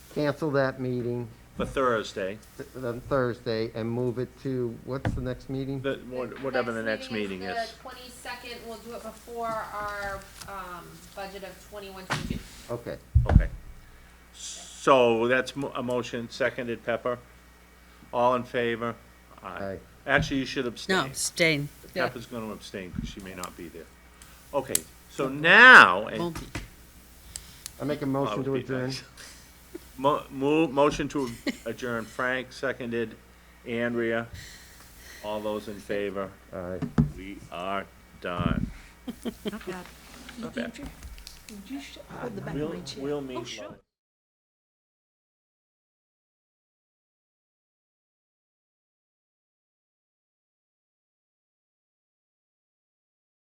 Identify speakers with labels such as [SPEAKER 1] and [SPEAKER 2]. [SPEAKER 1] cancel that meeting
[SPEAKER 2] for Thursday,
[SPEAKER 1] th- on Thursday and move it to, what's the next meeting?
[SPEAKER 2] the, wha- whatever the next meeting is.
[SPEAKER 3] The twenty-second, we'll do it before our, um, budget of twenty-one, twenty-two.
[SPEAKER 1] Okay.
[SPEAKER 2] Okay. So that's mo- a motion, seconded Pepper. All in favor?
[SPEAKER 1] Aye.
[SPEAKER 2] Actually, you should
[SPEAKER 4] No,
[SPEAKER 2] abstain.
[SPEAKER 4] abstain. Yeah,
[SPEAKER 2] Pepper's gonna abstain, because she may not be there. Okay, so now, and
[SPEAKER 4] won't be.
[SPEAKER 1] I make a
[SPEAKER 2] Oh,
[SPEAKER 1] motion
[SPEAKER 2] would
[SPEAKER 1] to
[SPEAKER 2] be
[SPEAKER 1] adjourn.
[SPEAKER 2] nice. Mo- mo- motion to adjourn, Frank, seconded, Andrea, all those in favor,
[SPEAKER 1] Aye.
[SPEAKER 2] we are done.
[SPEAKER 5] Not bad.
[SPEAKER 2] Not bad.
[SPEAKER 5] You sh- hold the back of
[SPEAKER 2] We'll,
[SPEAKER 5] my chair.
[SPEAKER 2] we'll
[SPEAKER 5] Oh,
[SPEAKER 2] meet.
[SPEAKER 5] sure.
[SPEAKER 2] Monday.